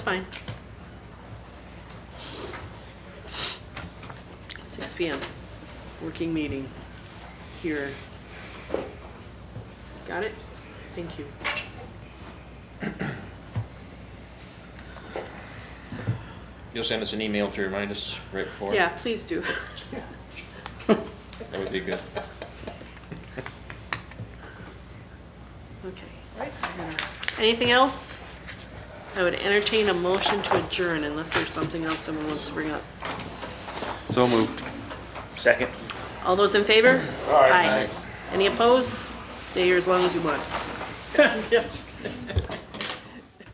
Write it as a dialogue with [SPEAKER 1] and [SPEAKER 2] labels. [SPEAKER 1] Fine. Six PM, working meeting here. Got it? Thank you.
[SPEAKER 2] You'll send us an email to remind us right before?
[SPEAKER 1] Yeah, please do.
[SPEAKER 2] That would be good.
[SPEAKER 1] Okay. I'm gonna- Anything else? I would entertain a motion to adjourn unless there's something else someone wants to bring up.
[SPEAKER 2] So moved. Second.
[SPEAKER 1] All those in favor? Aye. Any opposed? Stay here as long as you want.